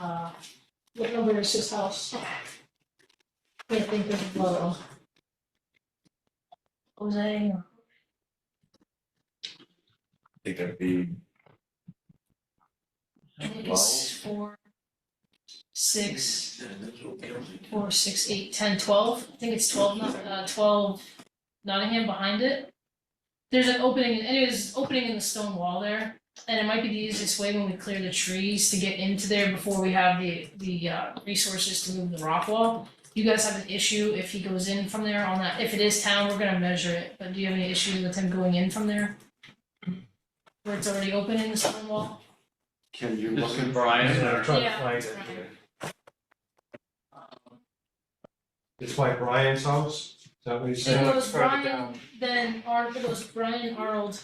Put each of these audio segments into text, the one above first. uh, what number is his house? Can't think of, well, Jose, think that'd be I think it's four, six, four, six, eight, ten, twelve. I think it's twelve, not- uh, twelve Nottingham behind it. There's an opening, anyways, it's opening in the stone wall there, and it might be the easiest way when we clear the trees to get into there before we have the, the, uh, resources to move the rock wall. You guys have an issue if he goes in from there on that, if it is town, we're gonna measure it, but do you have any issues with him going in from there? Where it's already open in the stone wall? Can you This look is at Brian, Brian? or- trying to Yeah, find it's it Brian. here. It's by Brian's house, is that what you It said? goes Brian, then Ar, it goes Brian, Arnold,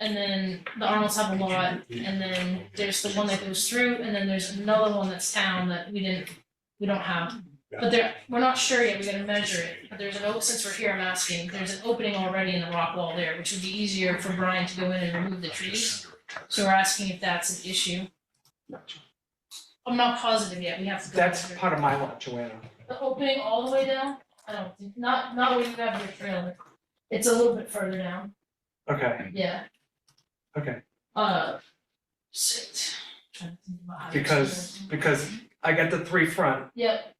and then the Arnolds have a lot, and then there's the one that goes through, and then there's another one that's town that we didn't, we don't have. But there, we're not sure yet, we gotta measure it, but there's an, o- since we're here, I'm asking, there's an opening already in the rock wall there, which would be easier for Brian to go in and remove the trees. So we're asking if that's an issue. I'm not positive yet, we have to go That's measure it. part of my lot, Joanna. The opening all the way down, I don't, think- not, not where you have your trailer. It's a little bit further down, Okay, yeah, okay, uh. Shit. Trying to think about how to because, explain because I got the three front, it. Yep,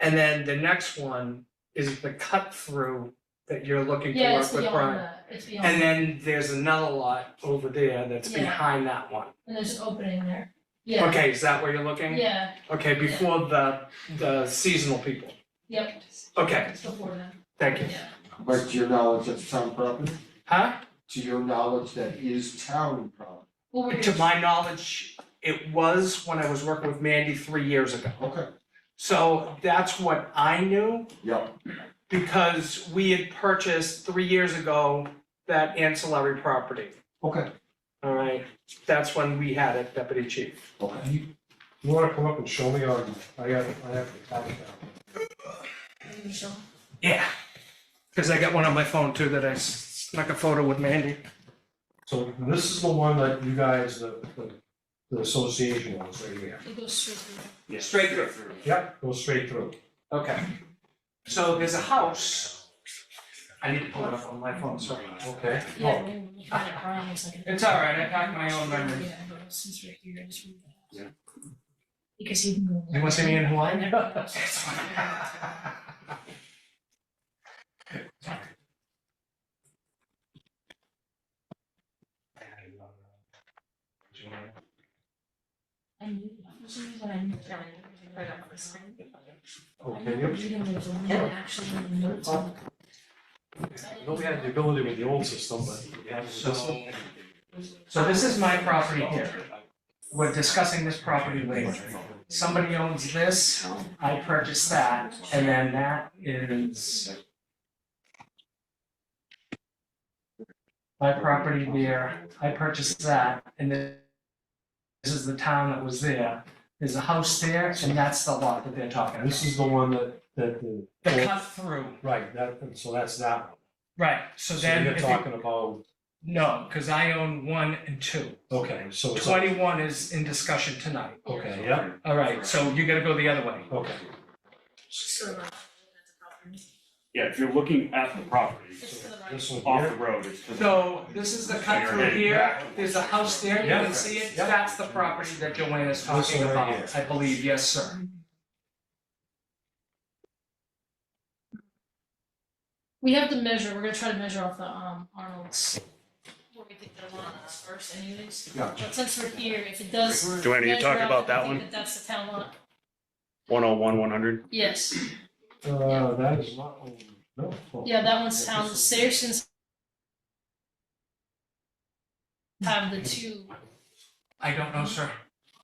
and then the next one is the cut through that you're looking to yeah, it's work with beyond Brian. that, it's And beyond, then there's another lot over there that's Yeah. behind that one. and there's an opening there, yeah, Okay, is that where you're looking? yeah, Okay, before the, the seasonal people. yep, Okay, it's before that, thank you. yeah. But to your knowledge, that's town property, Huh? to your knowledge, that is town property, Well, we're To gonna- my knowledge, it was when I was working with Mandy three years ago. okay, So that's what I knew. yep, because we had purchased three years ago that ancillary property. okay, All right, that's when we had it, deputy chief. okay. You wanna come up and show me, or I got, I have the copy now. we're sure. Yeah. Cause I got one on my phone too that I snuck a photo with Mandy. So this is the one that you guys, the, the, the association wants right here. It goes straight through. Straight through. Yep, goes straight through. Okay. So there's a house. I need to pull it up on my phone, sorry. Okay. Oh, Yeah, we're gonna look at it, Brian looks like it. Oh. It's all right, I packed my own memories. Yeah, but since we're here, I just. Yeah. Because he can go. Anyone see me in Hawaii? I knew, for some reason I knew John, right up on the screen. Okay, I remember reading those and then actually notes Oh. on it. I know we had the ability with the old system, but we have this one. So. So this is my property here. We're discussing this property later. Somebody owns this, I purchased that, and then that is my property there, I purchased that, and then this is the town that was there. There's a house there, and that's the lot that they're talking And about. this is the one that, that the. The cut through, Right, that, and so that's that one. right, so So then you're if you, talking about, no, because I own one and two. okay, so it's, Twenty-one is in discussion tonight. okay, yeah, All right, so you gotta go the other way. okay. So, uh, that's a problem. Yeah, if you're looking at the property, It's to the right. This one off the here, road, it's. to the- So this is the cut through here, there's a house there, you Yeah. can see it, Yeah. that's the property that Joanna's This talking one right about, I believe, yes, sir. We have to measure, we're gonna try to measure off the, um, Arnold's, where we think the lot is first anyways. Yeah. But since we're here, if it does measure Joanna, you talking out, about I that think one? that's the town lot, One oh one, one hundred? yes, uh, that is not, oh, no. yeah, that one's town, Saracens have the two, I don't know, sir.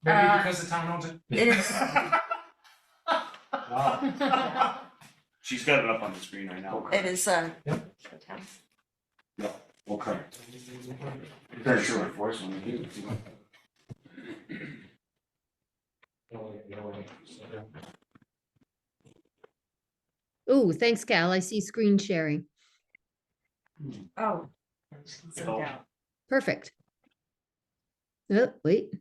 Maybe Uh, because the town owns it? Wow, She's got it up on the screen right now. Okay. It is, uh. Yep. okay. Okay. Very sure enforcement, you Ooh, thanks, Cal. I see screen sharing. Oh. Oh. Perfect. Oh, wait.